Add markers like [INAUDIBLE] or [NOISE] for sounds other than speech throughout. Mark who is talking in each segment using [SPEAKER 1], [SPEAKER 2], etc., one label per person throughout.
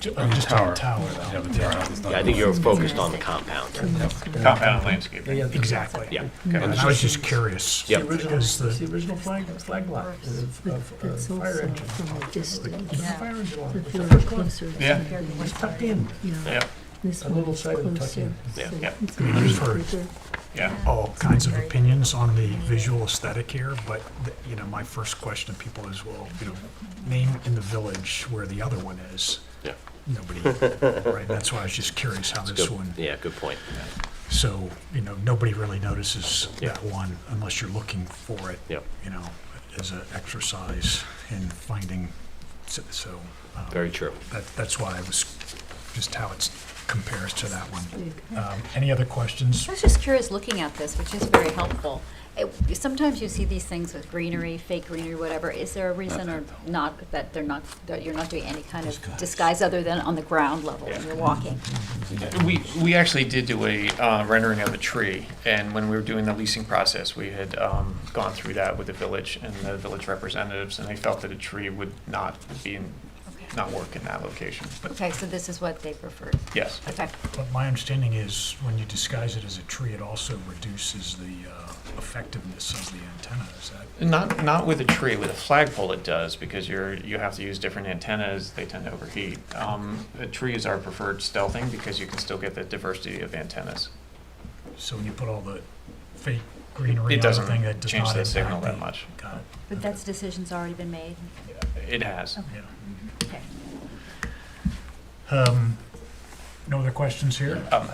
[SPEAKER 1] Ju- I'm just on the tower,
[SPEAKER 2] Yeah,
[SPEAKER 1] though.
[SPEAKER 2] the tower. It's not-
[SPEAKER 3] Yeah, I think you're focused on the compound.
[SPEAKER 4] Compound and landscaping.
[SPEAKER 1] Exactly. Mm-hmm.
[SPEAKER 3] Yeah.
[SPEAKER 1] And I was just curious.
[SPEAKER 3] Yep.
[SPEAKER 1] Because the,
[SPEAKER 5] original flag, flag lot of, of uh, fire engine. From a distance,
[SPEAKER 6] Yeah.
[SPEAKER 5] that
[SPEAKER 6] That
[SPEAKER 5] they
[SPEAKER 6] they
[SPEAKER 5] were
[SPEAKER 6] were
[SPEAKER 5] closer
[SPEAKER 6] closer
[SPEAKER 4] Yeah.
[SPEAKER 5] was tucked in,
[SPEAKER 4] Yeah,
[SPEAKER 6] This
[SPEAKER 5] a little side of tuck
[SPEAKER 6] closer.
[SPEAKER 5] in.
[SPEAKER 3] Yeah.
[SPEAKER 4] Yeah.
[SPEAKER 1] I've heard
[SPEAKER 4] yeah.
[SPEAKER 1] all kinds of opinions on the visual aesthetic here, but, the- you know, my first question to people is, well, you know, name in the village where the other one is.
[SPEAKER 3] Yeah. [LAUGHS]
[SPEAKER 1] Nobody, right, that's why I was just curious how this
[SPEAKER 3] Good-
[SPEAKER 1] one,
[SPEAKER 3] Yeah, good point.
[SPEAKER 1] so, you know, nobody really notices
[SPEAKER 3] Yeah.
[SPEAKER 1] that one unless you're looking for it.
[SPEAKER 3] Yeah.
[SPEAKER 1] You know, as an exercise in finding, so- so. um,
[SPEAKER 3] Very true.
[SPEAKER 1] That, that's why I was, just how it compares to that one. Um, Any other questions?
[SPEAKER 6] I was just curious, looking at this, which is very helpful. It- Sometimes you see these things with greenery, fake greenery, whatever. Is there a reason or not that they're not, that you're not doing any kind of disguise other than on the ground level when you're walking?
[SPEAKER 4] We, we actually did do a uh, rendering of a tree, and when we were doing the leasing process, we had um, gone through that with the village and the village representatives, and they felt that a tree would not be, in- not work in that location, but
[SPEAKER 6] Okay, so this is what they preferred.
[SPEAKER 4] yes.
[SPEAKER 6] Okay.
[SPEAKER 1] But my understanding is, when you disguise it as a tree, it also reduces the uh, effectiveness of the antenna, is that?
[SPEAKER 4] Not, not with a tree, with a flagpole it does, because you're, you have to use different antennas, they tend to overheat. Um, A tree is our preferred stealthing, because you can still get the diversity of antennas.
[SPEAKER 1] So when you put all the fake greenery
[SPEAKER 4] It
[SPEAKER 1] on the
[SPEAKER 4] doesn't
[SPEAKER 1] thing, that does
[SPEAKER 4] change
[SPEAKER 1] not
[SPEAKER 4] the signal
[SPEAKER 1] impact
[SPEAKER 4] that
[SPEAKER 1] the-
[SPEAKER 4] much.
[SPEAKER 1] Got it,
[SPEAKER 6] But that's, decision's already been made?
[SPEAKER 4] It has.
[SPEAKER 1] yeah.
[SPEAKER 6] Okay.
[SPEAKER 1] Um, No other questions here?
[SPEAKER 4] Um,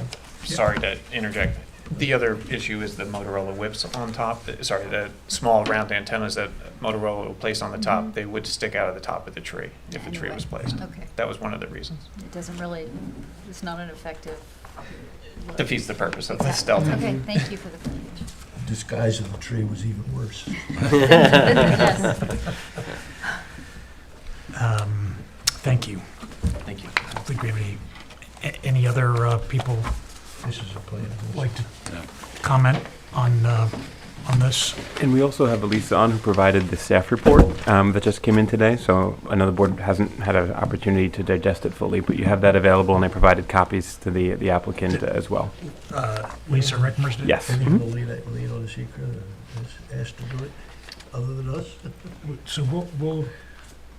[SPEAKER 4] Sorry to interject. The other issue is the Motorola whips on top, uh, sorry, the small round antennas that Motorola will place on the
[SPEAKER 1] Mm-hmm.
[SPEAKER 4] top, they would stick out of the top of the tree if the tree was placed.
[SPEAKER 6] Okay.
[SPEAKER 4] That was one of the reasons.
[SPEAKER 6] It doesn't really, it's not an effective. look.
[SPEAKER 4] Defeats the purpose of the
[SPEAKER 6] Exactly.
[SPEAKER 4] stealth.
[SPEAKER 6] Okay, thank you for the clarification.
[SPEAKER 5] Disguise of the tree was even worse.
[SPEAKER 6] Yes.
[SPEAKER 1] Um, Thank you.
[SPEAKER 4] Thank you.
[SPEAKER 1] I don't think we have any, a- any other uh, people
[SPEAKER 5] This is a plan.
[SPEAKER 1] like to comment on, uh, on this?
[SPEAKER 7] And we also have Elisa on who provided the staff report um, that just came in today. So another board hasn't had an opportunity to digest it fully, but you have that available, and I provided copies to the the applicant as well.
[SPEAKER 1] Uh, Lisa Rickmers did?
[SPEAKER 7] Yes. Mm-hmm.
[SPEAKER 5] Any people lead, lead on the secret, is asked to do it, other than us?
[SPEAKER 1] So we'll, we'll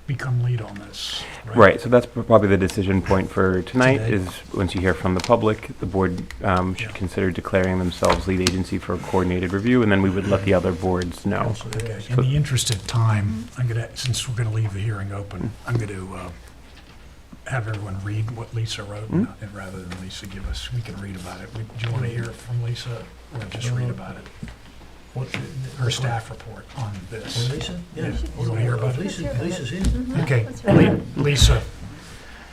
[SPEAKER 1] become lead on this, right?
[SPEAKER 7] Right. So that's probably the decision point for tonight.
[SPEAKER 1] Today.
[SPEAKER 7] Is once you hear from the public, the board um, should
[SPEAKER 1] Yeah.
[SPEAKER 7] consider declaring themselves lead agency for a coordinated review, and then we would let the other boards know.
[SPEAKER 5] Council
[SPEAKER 1] Okay,
[SPEAKER 5] asked.
[SPEAKER 1] in the interest of time, I'm gonna, since we're gonna leave the hearing open, I'm gonna, uh, have everyone read what Lisa wrote, and and rather than Lisa give us, we can read about it. We- Do you wanna hear it from Lisa, or just read about it?
[SPEAKER 5] What-
[SPEAKER 1] Her staff report on this.
[SPEAKER 5] Oh, Lisa?
[SPEAKER 1] Yeah.
[SPEAKER 5] Yeah.
[SPEAKER 1] You wanna hear about it?
[SPEAKER 5] Lisa, Lisa's in.
[SPEAKER 1] Okay,
[SPEAKER 6] Let's read
[SPEAKER 1] Le- Lisa,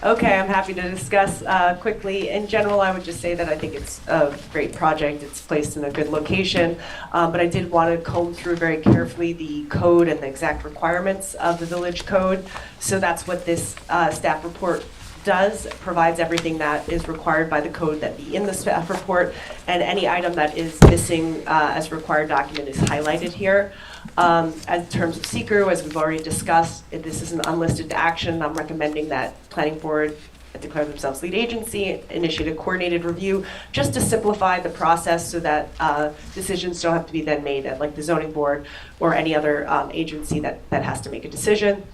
[SPEAKER 8] Okay, I'm happy to discuss uh, quickly. In general, I would just say that I think it's a great project. It's placed in a good location, Uh, but I did want to comb through very carefully the code and the exact requirements of the village code. So that's what this uh, staff report does, provides everything that is required by the code that be in the staff report, and any item that is missing uh, as required document is highlighted here. Um, As in terms of seeker, as we've already discussed, it- this is an unlisted action. I'm recommending that planning board declare themselves lead agency, initiate a coordinated review, just to simplify the process so that uh, decisions don't have to be then made at like the zoning board or any other um, agency that, that has to make a decision.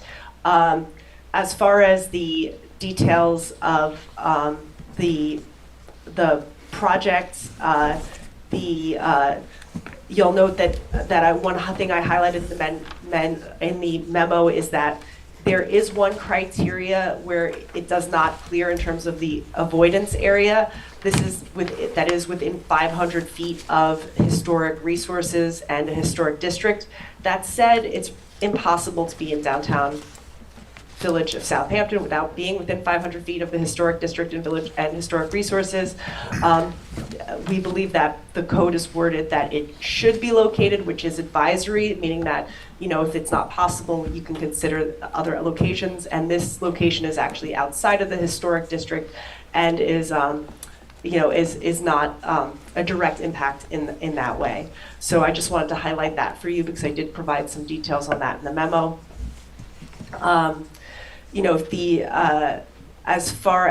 [SPEAKER 8] Um, As far as the details of um, the, the project, uh, the, uh, you'll note that, that I, one thing I highlighted in the men, men, in the memo is that there is one criteria where it does not clear in terms of the avoidance area. This is with, that is within 500 feet of historic resources and a historic district. That said, it's impossible to be in downtown Village of Southampton without being within 500 feet of the historic district and village and historic resources. Um, We believe that the code is worded that it should be located, which is advisory, meaning that, you know, if it's not possible, you can consider other locations. And this location is actually outside of the historic district and is, um, you know, is, is not um, a direct impact in, in that way. So I just wanted to highlight that for you because I did provide some details on that in the memo um, you know, if the, uh, As far